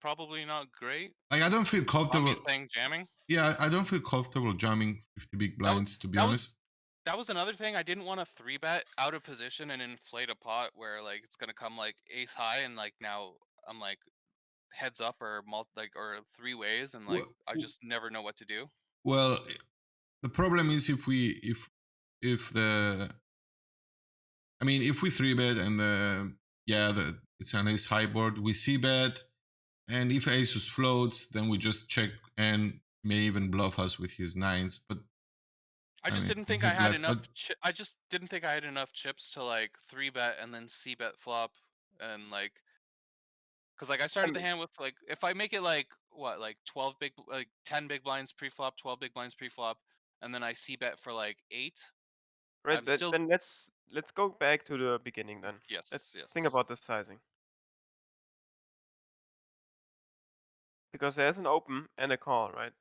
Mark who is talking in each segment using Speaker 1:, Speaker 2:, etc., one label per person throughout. Speaker 1: probably not great.
Speaker 2: Like I don't feel comfortable.
Speaker 1: Tommy's thing jamming.
Speaker 2: Yeah, I I don't feel comfortable jamming 50 big blinds to be
Speaker 1: that was-
Speaker 2: honest.
Speaker 1: That was another thing. I didn't want to three bet out of position and inflate a pot where like it's gonna come like ace high and like now I'm like heads up or multi like or three ways and like
Speaker 2: Well,
Speaker 1: I
Speaker 2: w-
Speaker 1: just never know what to do.
Speaker 2: Well, the problem is if we if if the I mean if we three bet and the yeah the it's an ace high board we see bet and if aces floats then we just check and may even bluff us with his nines but
Speaker 1: I
Speaker 2: I
Speaker 1: just
Speaker 2: mean,
Speaker 1: didn't think
Speaker 2: he
Speaker 1: I had
Speaker 2: left- but-
Speaker 1: enough. Chi- I just didn't think I had enough chips to like three bet and then c bet flop and like, cause like I started the
Speaker 3: mean-
Speaker 1: hand with like if I make it like what like twelve big bl- like ten big blinds pre flop, twelve big blinds pre flop, and then I c bet for like eight.
Speaker 3: Right,
Speaker 1: I'm
Speaker 3: but
Speaker 1: still-
Speaker 3: then let's let's go back to the beginning then.
Speaker 1: Yes,
Speaker 3: Let's
Speaker 1: yes.
Speaker 3: think about the sizing. Because there's an open and a call, right?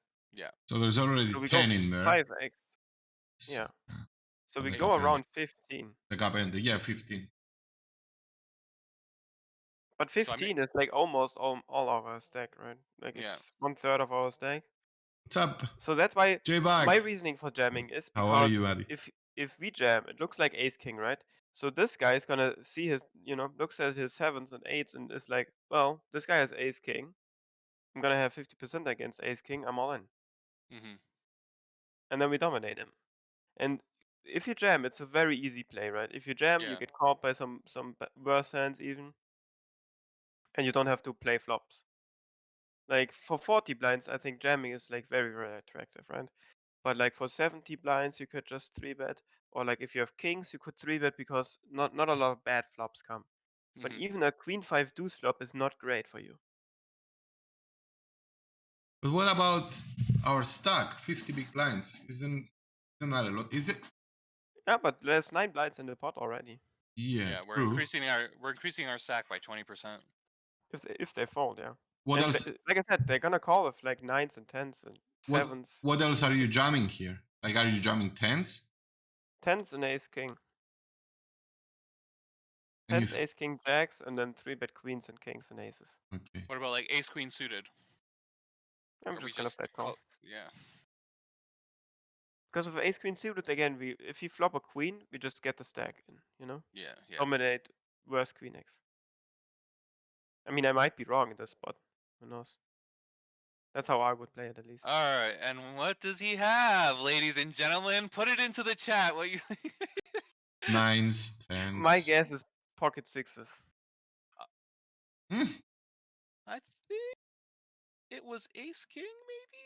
Speaker 2: so there's already
Speaker 3: So we go
Speaker 2: ten in there
Speaker 3: Five X.
Speaker 2: S-
Speaker 3: yeah. So
Speaker 2: I
Speaker 3: we
Speaker 2: think
Speaker 3: go
Speaker 2: okay.
Speaker 3: around fifteen.
Speaker 2: the gap ended yeah fifteen
Speaker 3: But
Speaker 1: So I mean-
Speaker 3: fifteen is like almost all, all of our stack, right? Like
Speaker 1: Yeah.
Speaker 3: it's one third of our stack.
Speaker 2: what's up
Speaker 3: So that's why
Speaker 2: J
Speaker 3: my
Speaker 2: Bag
Speaker 3: reasoning for jamming is
Speaker 2: how are
Speaker 3: because
Speaker 2: you buddy
Speaker 3: if if we jam, it looks like ace king, right? So this guy is gonna see his, you know, looks at his sevens and eights and is like, well, this guy has ace king. I'm gonna have 50% against ace king. I'm all in,
Speaker 1: Mhm.
Speaker 3: and then we dominate him. And if you jam, it's a very easy play, right? If you jam,
Speaker 1: Yeah.
Speaker 3: you get caught by some some b- worse hands even, and you don't have to play flops. Like for 40 blinds, I think jamming is like very very attractive, right? But like for 70 blinds, you could just three bet, or like if you have kings, you could three bet because not not a lot of bad flops come. But
Speaker 1: mhm.
Speaker 3: even a queen five deuce flop is not great for you.
Speaker 2: but what about our stack fifty big blinds isn't isn't that a lot is it
Speaker 3: Yeah, but there's nine blinds in the pot already.
Speaker 2: yeah,
Speaker 1: yeah, we're
Speaker 2: true.
Speaker 1: increasing our we're increasing our stack by twenty percent.
Speaker 3: If they, if they fold, yeah.
Speaker 2: what
Speaker 3: And
Speaker 2: else
Speaker 3: th- like I said, they're gonna call with like nines and tens and
Speaker 2: What-
Speaker 3: sevens,
Speaker 2: What else are you jamming here? Like, are you jamming tens?
Speaker 3: tens and ace king,
Speaker 2: And you
Speaker 3: tens, ace king, jacks, and then three bet queens and kings and aces.
Speaker 2: f- okay.
Speaker 1: What about like ace queen suited?
Speaker 3: I'm
Speaker 1: Are we
Speaker 3: just gonna flat call.
Speaker 1: call- Yeah.
Speaker 3: Because with ace queen suited again, we if we flop a queen, we just get the stack in, you know,
Speaker 1: Yeah. Yeah.
Speaker 3: dominate worse queen x. I mean, I might be wrong in this spot. Who knows? That's how I would play it at least.
Speaker 1: All right, and what does he have, ladies and gentlemen? Put it into the chat. What you?
Speaker 2: Nines, tens.
Speaker 3: My guess is pocket sixes.
Speaker 2: Hmm?
Speaker 1: I think it was Ace King, maybe.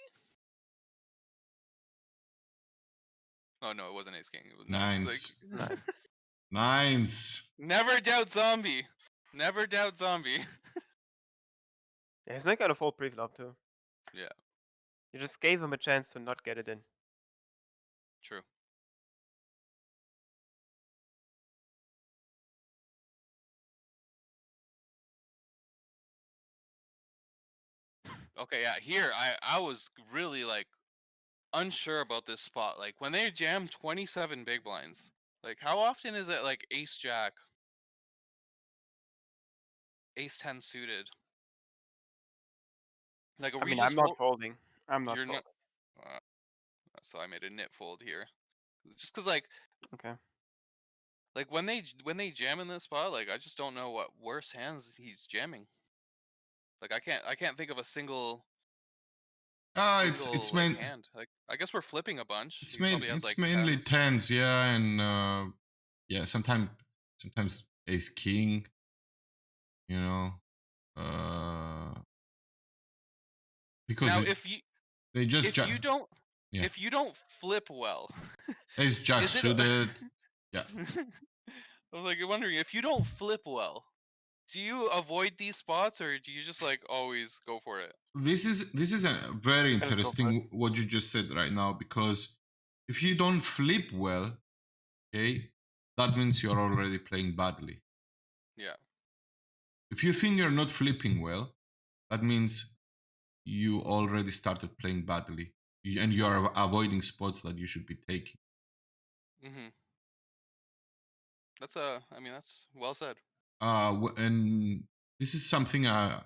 Speaker 1: Oh no, it wasn't Ace King. It was
Speaker 2: Nines.
Speaker 1: nines. Like,
Speaker 3: Nine.
Speaker 2: Nines.
Speaker 1: never doubt zombie. Never doubt zombie.
Speaker 3: Yeah, he's not gonna fold pre-flop too.
Speaker 1: Yeah.
Speaker 3: You just gave him a chance to not get it in.
Speaker 1: True. Okay, yeah, here I I was really like unsure about this spot. Like when they jam 27 big blinds. Like how often is it like ace jack? Ace 10 suited. Like are
Speaker 3: I
Speaker 1: we
Speaker 3: mean,
Speaker 1: just
Speaker 3: I'm not
Speaker 1: fo-
Speaker 3: folding. I'm not
Speaker 1: you're
Speaker 3: folding.
Speaker 1: not. Uh, so I made a knit fold here, just because like
Speaker 3: Okay.
Speaker 1: like when they j- when they jam in this spot, like I just don't know what worse hands he's jamming. Like I can't I can't think of a single,
Speaker 2: Ah, it's
Speaker 1: single
Speaker 2: it's
Speaker 1: like,
Speaker 2: main,
Speaker 1: hand. Like I guess we're flipping a bunch.
Speaker 2: it's
Speaker 1: he
Speaker 2: main,
Speaker 1: probably has,
Speaker 2: it's
Speaker 1: like,
Speaker 2: mainly
Speaker 1: tens.
Speaker 2: tens, yeah, and uh, yeah, sometimes sometimes ace king, you know, uh, because
Speaker 1: Now
Speaker 2: it-
Speaker 1: if you
Speaker 2: they just
Speaker 1: if
Speaker 2: jam
Speaker 1: you don't
Speaker 2: yeah.
Speaker 1: if you don't flip well,
Speaker 2: ace jack
Speaker 1: is it a-
Speaker 2: suited.
Speaker 1: I'm like wondering if you don't flip well, do you avoid these spots or do you just like always go for it?
Speaker 2: this is this is a very
Speaker 3: go for
Speaker 2: interesting what you just said right now because if you don't flip well okay that means you're already playing badly
Speaker 1: Yeah.
Speaker 2: if you think you're not flipping well that means you already started playing badly You- and you're av- avoiding spots that you should be taking
Speaker 1: Mm-hmm. That's uh I mean that's well said.
Speaker 2: uh w- and this is something i